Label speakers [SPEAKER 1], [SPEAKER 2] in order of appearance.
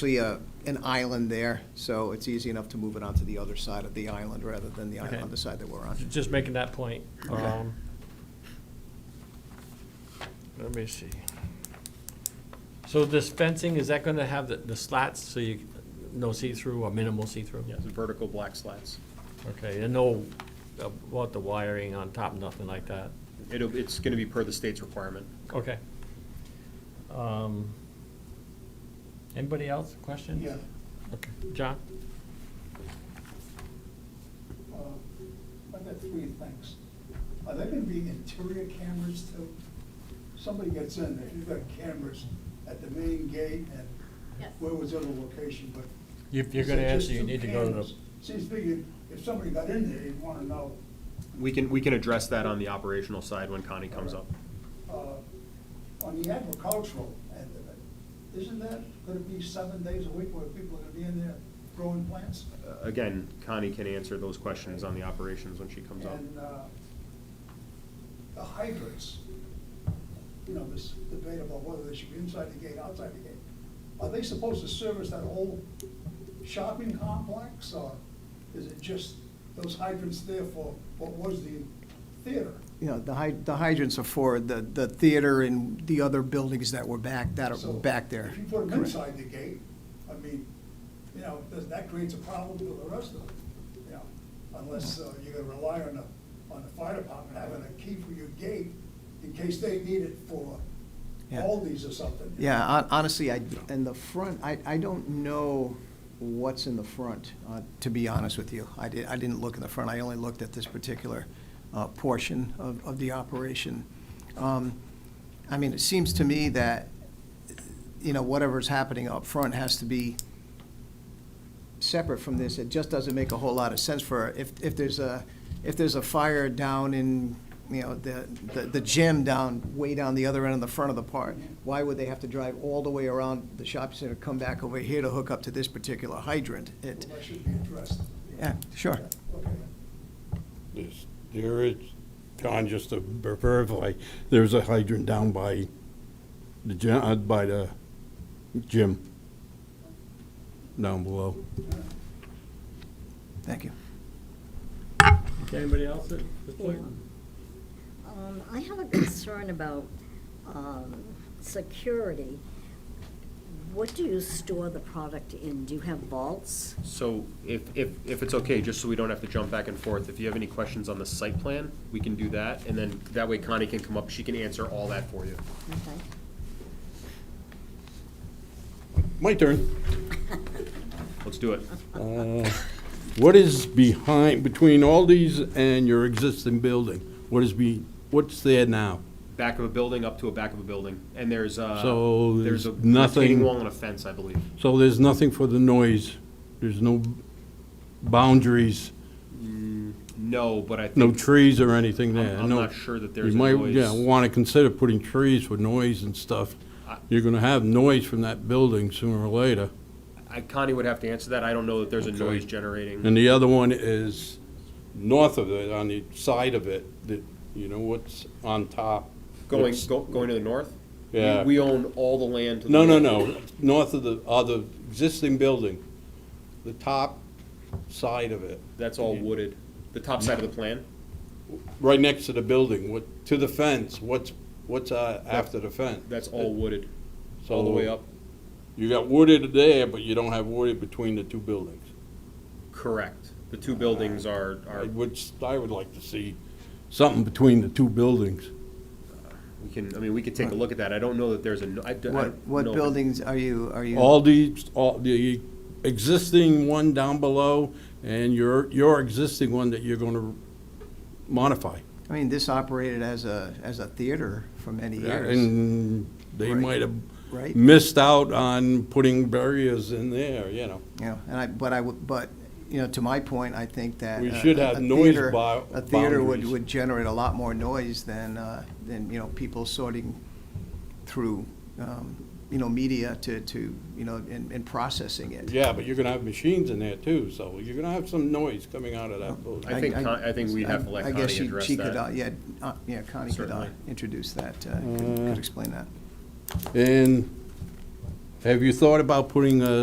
[SPEAKER 1] actually a, an island there, so it's easy enough to move it onto the other side of the island rather than the
[SPEAKER 2] Okay.
[SPEAKER 1] island on the side that we're on.
[SPEAKER 2] Ju- Just making that point.
[SPEAKER 1] Okay.
[SPEAKER 2] Um, Let me see. So this fencing, is that gonna have the, the slats, so you, no see-through or minimal see-through?
[SPEAKER 3] Yeah, the vertical black slats.
[SPEAKER 2] Okay, and no, about the wiring on top, nothing like that?
[SPEAKER 3] It'll, it's gonna be per the state's requirement.
[SPEAKER 2] Okay. Um, Anybody else, questions?
[SPEAKER 4] Yeah,
[SPEAKER 2] Okay, John?
[SPEAKER 4] uh, I got three things. Are there gonna be interior cameras too? Somebody gets in there, you've got cameras at the main gate and
[SPEAKER 5] Yes.
[SPEAKER 4] where was the other location, but.
[SPEAKER 2] If you're gonna
[SPEAKER 4] Is it just
[SPEAKER 2] answer, you
[SPEAKER 4] two
[SPEAKER 2] need to go to
[SPEAKER 4] cameras?
[SPEAKER 2] the,
[SPEAKER 4] Seems to me, if somebody got in there, you'd wanna know.
[SPEAKER 3] We can, we can address that on the operational side when Connie comes up.
[SPEAKER 4] Uh, On the agricultural end of it, isn't that gonna be seven days a week where people are gonna be in there growing plants?
[SPEAKER 3] Uh, Again, Connie can answer those questions on the operations when she comes up.
[SPEAKER 4] And uh, the hydrants, you know, this debate about whether they should be inside the gate, outside the gate. Are they supposed to service that whole shopping complex, or is it just those hydrants there for what was the theater?
[SPEAKER 1] You know, the hy- the hydrants are for the, the theater and the other buildings that were back, that
[SPEAKER 4] So
[SPEAKER 1] are back there.
[SPEAKER 4] If you put them
[SPEAKER 1] Correct.
[SPEAKER 4] inside the gate, I mean, you know, does- that creates a problem for the rest of them, you know? Unless uh, you're gonna rely on the, on the fire department having a key for your gate in case they need it for
[SPEAKER 1] Yeah.
[SPEAKER 4] Aldi's or something. you know?
[SPEAKER 1] Yeah, hon- honestly, I, in the front, I, I don't know what's in the front, uh, to be honest with you. I did, I didn't look in the front, I only looked at this particular, uh, portion of, of the operation. Um, I mean, it seems to me that, you know, whatever's happening up front has to be separate from this. It just doesn't make a whole lot of sense for, if, if there's a, if there's a fire down in, you know, the, the- the gym down, way down the other end of the front of the park, why would they have to drive all the way around the shopping center, come back over here to hook up to this particular hydrant? It,
[SPEAKER 4] Well, That should be addressed.
[SPEAKER 1] yeah, sure.
[SPEAKER 4] Okay.
[SPEAKER 6] There's, there is, John, just to verify, there's a hydrant down by the gym, uh, by the gym, down below.
[SPEAKER 1] Thank you.
[SPEAKER 2] anybody else at this point?
[SPEAKER 5] Um, I have a concern about, um, security. What do you store the product in? Do you have vaults?
[SPEAKER 3] So if, if, if it's okay, just so we don't have to jump back and forth, if you have any questions on the site plan, we can do that, and then that way Connie can come up, she can answer all that for you.
[SPEAKER 5] Okay.
[SPEAKER 6] My turn.
[SPEAKER 3] Let's do it.
[SPEAKER 6] What is behind, between all these and your existing building? What is be, what's there now?
[SPEAKER 3] Back of a building, up to a back of a building, and there's uh
[SPEAKER 6] So
[SPEAKER 3] there's a
[SPEAKER 6] there's nothing-
[SPEAKER 3] retaining wall and a fence, I believe.
[SPEAKER 6] So there's nothing for the noise, there's no boundaries,
[SPEAKER 3] No, but I think.
[SPEAKER 6] no trees or anything there?
[SPEAKER 3] I'm I'm
[SPEAKER 6] no-
[SPEAKER 3] not sure that
[SPEAKER 6] You
[SPEAKER 3] there's a
[SPEAKER 6] might,
[SPEAKER 3] noise.
[SPEAKER 6] yeah, want to consider putting trees for noise and stuff. You're going to have noise from that building sooner or later.
[SPEAKER 3] I- Connie would have to answer that. I don't know that there's a noise generating.
[SPEAKER 6] And the other one is north of it, on the side of it, that, you know, what's on top.
[SPEAKER 3] Going,
[SPEAKER 6] It's-
[SPEAKER 3] go- going to the north? We-
[SPEAKER 6] Yeah.
[SPEAKER 3] We own all the land to the.
[SPEAKER 6] No, no,
[SPEAKER 3] north.
[SPEAKER 6] no, north of the, of the existing building, the top side of it,
[SPEAKER 3] That's all wooded. The top side of the plan?
[SPEAKER 6] right next to the building, what, to the fence, what's, what's uh, after the fence?
[SPEAKER 3] That's all wooded,
[SPEAKER 6] So
[SPEAKER 3] all the way up.
[SPEAKER 6] You got wooded there, but you don't have wooded between the two buildings.
[SPEAKER 3] Correct. The two buildings are, are,
[SPEAKER 6] Uh, I would, I would like to see something between the two buildings.
[SPEAKER 3] we can, I mean, we could take a look at that. I don't know that there's a, no- I d- I
[SPEAKER 1] What,
[SPEAKER 3] don't
[SPEAKER 1] what
[SPEAKER 3] know if-
[SPEAKER 1] buildings are you, are you?
[SPEAKER 6] All the, all the existing one down below and your, your existing one that you're gonna modify.
[SPEAKER 1] I mean, this operated as a, as a theater for many years.
[SPEAKER 6] And they
[SPEAKER 1] Right.
[SPEAKER 6] might have
[SPEAKER 1] Right.
[SPEAKER 6] missed out on putting barriers in there, you know.
[SPEAKER 1] You know, and I, but I would, but, you know, to my point, I think that.
[SPEAKER 6] We
[SPEAKER 1] a-
[SPEAKER 6] should
[SPEAKER 1] a-
[SPEAKER 6] have
[SPEAKER 1] a
[SPEAKER 6] noise
[SPEAKER 1] theater-
[SPEAKER 6] bou-
[SPEAKER 1] A theater would,
[SPEAKER 6] boundaries.
[SPEAKER 1] would generate a lot more noise than, uh, than, you know, people sorting through, um, you know, media to, to, you know, and, and processing it.
[SPEAKER 6] Yeah, but you're gonna have machines in there too, so you're gonna have some noise coming out of that building.
[SPEAKER 3] I think Con- I think we'd have to let
[SPEAKER 1] I guess
[SPEAKER 3] Connie
[SPEAKER 1] she-
[SPEAKER 3] address
[SPEAKER 1] she could,
[SPEAKER 3] that.
[SPEAKER 1] uh, Yeah, uh, yeah, Connie could uh,
[SPEAKER 3] Certainly.
[SPEAKER 1] introduce that, uh, could could explain that.
[SPEAKER 6] And have you thought about putting a